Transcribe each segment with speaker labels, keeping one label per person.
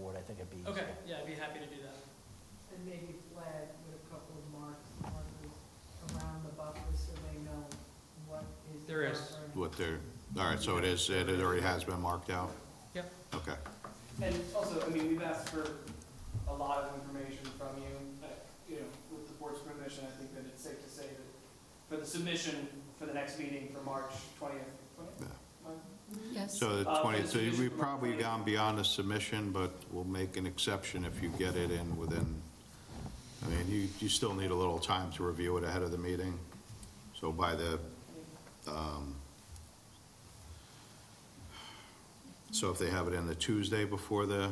Speaker 1: a beach.
Speaker 2: Okay, yeah, I'd be happy to do that.
Speaker 3: And maybe flag with a couple of marks, markers around the buffer so they know what is.
Speaker 2: There is.
Speaker 3: buffer.
Speaker 4: what they're, all right, so it is, it already has been marked out?
Speaker 2: Yep.
Speaker 4: Okay.
Speaker 5: And also, I mean, we've asked for a lot of information from you, but, you know, with the board's permission, I think that it's safe to say that for the submission for the next meeting for March twentieth,
Speaker 4: Yeah.
Speaker 6: Yes,
Speaker 4: So the
Speaker 5: Uh,
Speaker 4: 20,
Speaker 5: it's
Speaker 4: so
Speaker 5: finished
Speaker 4: we've
Speaker 5: for March
Speaker 4: probably
Speaker 5: 20.
Speaker 4: gone beyond the submission, but we'll make an exception if you get it in within, I mean, you, you still need a little time to review it ahead of the meeting. So by the, um, so if they have it in the Tuesday before the,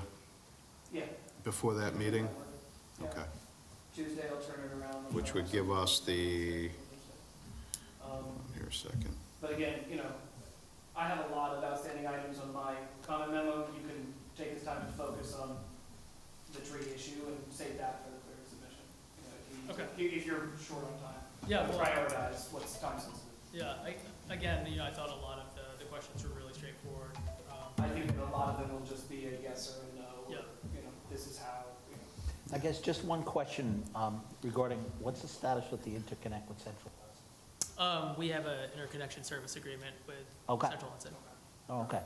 Speaker 5: yeah.
Speaker 4: before that meeting?
Speaker 5: Yeah.
Speaker 4: Okay.
Speaker 5: Tuesday, I'll turn it around.
Speaker 4: Which would give us the,
Speaker 5: Um,
Speaker 4: here a second.
Speaker 5: But again, you know, I have a lot of outstanding items on my comment memo. You can take this time to focus on the tree issue and save that for the clear submission. You know, If you- if you're short on time,
Speaker 2: Yeah, well-
Speaker 5: prioritize what's time sensitive.
Speaker 2: Yeah, I, again, you know, I thought a lot of Uh, the, the questions were really straightforward. Um,
Speaker 5: I think that a lot of them will just be a yes or a no, or,
Speaker 2: Yeah.
Speaker 5: you know, this is how, you know.
Speaker 1: I guess just one question um, regarding, what's the status with the interconnect with Central?
Speaker 2: Um, we have an interconnection service agreement with
Speaker 1: Okay.
Speaker 2: Central Hudson.
Speaker 1: Oh, okay.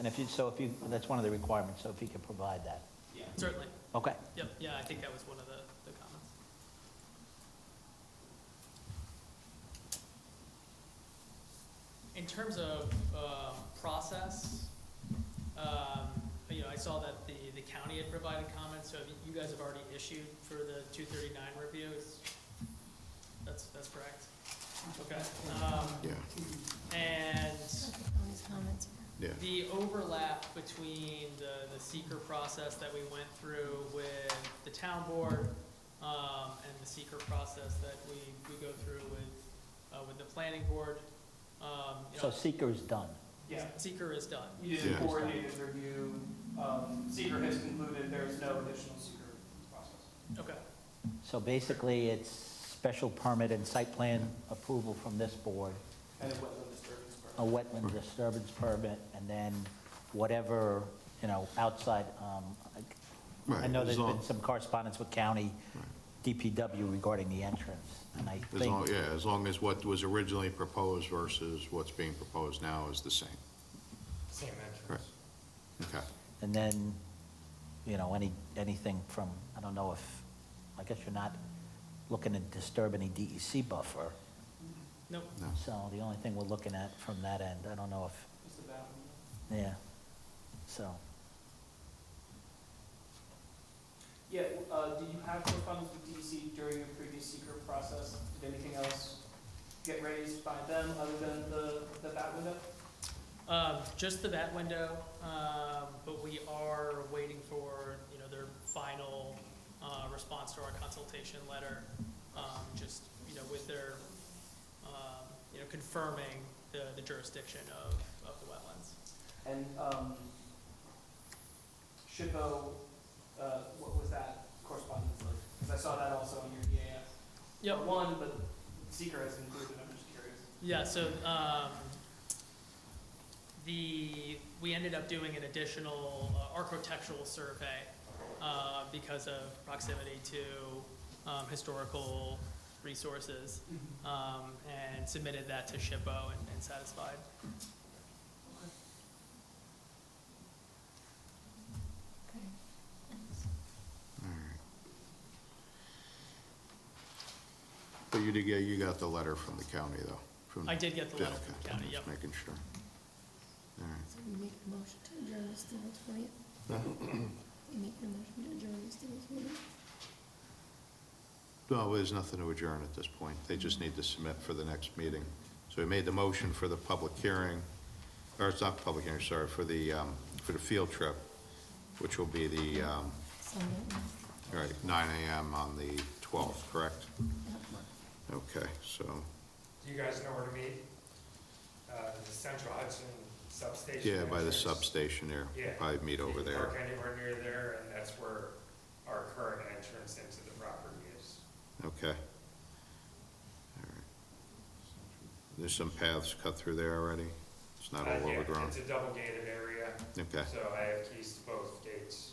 Speaker 1: And if you, so if you, that's one of the requirements, so if you can provide that.
Speaker 5: Yeah.
Speaker 2: Certainly,
Speaker 1: Okay.
Speaker 2: yep, yeah, I think that was one of the, the comments. In terms of, um, process, um, you know, I saw that the, the county had provided comments, so you guys have already issued for the two thirty-nine review, is, that's, that's correct? Okay, um,
Speaker 4: Yeah,
Speaker 2: and
Speaker 6: Tony's comments
Speaker 4: yeah.
Speaker 6: here.
Speaker 2: the overlap between the, the seeker process that we went through with the town board, um, and the seeker process that we, we go through with, uh, with the planning board, um, you
Speaker 1: So
Speaker 2: know,
Speaker 1: seeker is done.
Speaker 5: Yeah,
Speaker 2: seeker is done.
Speaker 5: you
Speaker 4: Yeah.
Speaker 5: did a coordinated review, um, seeker has concluded there is no additional seeker process.
Speaker 2: Okay,
Speaker 1: So basically, it's special permit and site plan approval from this board,
Speaker 5: And a wetland disturbance. permit.
Speaker 1: a wetland disturbance permit, and then whatever, you know, outside, um, I- I
Speaker 4: Right,
Speaker 1: know
Speaker 4: as
Speaker 1: there's
Speaker 4: long-
Speaker 1: been some correspondence with county DPW regarding the entrance, and I
Speaker 4: As long,
Speaker 1: think,
Speaker 4: yeah, as long as what was originally proposed versus what's being proposed now is the same.
Speaker 7: Same
Speaker 4: Correct.
Speaker 7: entrance.
Speaker 4: Okay.
Speaker 1: and then, you know, any, anything from, I don't know if, I guess you're not looking to disturb any DEC buffer,
Speaker 2: nope,
Speaker 4: No.
Speaker 1: so the only thing we're looking at from that end, I don't know if
Speaker 5: It's about,
Speaker 1: Yeah, so,
Speaker 5: yeah, uh, do you have correspondence with DC during your previous seeker process? Did anything else get raised by them other than the, the bat window?
Speaker 2: um, just the bat window, um, but we are waiting for, you know, their final, uh, response to our consultation letter, um, just, you know, with their, um, you know, confirming the, the jurisdiction of, of the wetlands.
Speaker 5: And, um, SHPO, uh, what was that correspondence like? Because I saw that also in your EAF.
Speaker 2: Yep,
Speaker 5: Not One, but seeker has included, I'm just curious.
Speaker 2: Yeah, so, um, the, we ended up doing an additional uh, architectural survey, uh, because of proximity to, um, historical resources, um, and submitted that to SHPO and, and satisfied.
Speaker 6: Okay. Thanks.
Speaker 4: But you did get, you got the letter from the county, though? from-
Speaker 2: I did get the
Speaker 4: Yeah,
Speaker 2: letter from the
Speaker 4: okay,
Speaker 2: county,
Speaker 4: just
Speaker 2: yep.
Speaker 4: Making sure. All right.
Speaker 6: So we make a motion to adjourn this till the twentieth? We make a motion to adjourn this till the twentieth?
Speaker 4: No, there's nothing to adjourn at this point. They just need to submit for the next meeting. So we made the motion for the public hearing, or it's not public hearing, sorry, for the, um, for the field trip, which will be the, um,
Speaker 6: Sunday.
Speaker 4: all right, 9 AM on the 12th, correct?
Speaker 6: Yep.
Speaker 4: Okay, so,
Speaker 7: You guys know where to meet? Uh, the Central Hudson substation.
Speaker 4: yeah, by the
Speaker 7: entrance.
Speaker 4: substation there. We'll
Speaker 7: Yeah.
Speaker 4: Probably meet
Speaker 7: You
Speaker 4: over
Speaker 7: can
Speaker 4: there.
Speaker 7: Park anywhere near there, and that's where our current entrance into the property is.
Speaker 4: Okay. All right. There's some paths cut through there already? It's not
Speaker 7: Uh,
Speaker 4: all
Speaker 7: yeah,
Speaker 4: overgrown?
Speaker 7: It's a double gated area,
Speaker 4: Okay,
Speaker 7: so I have keys to both gates.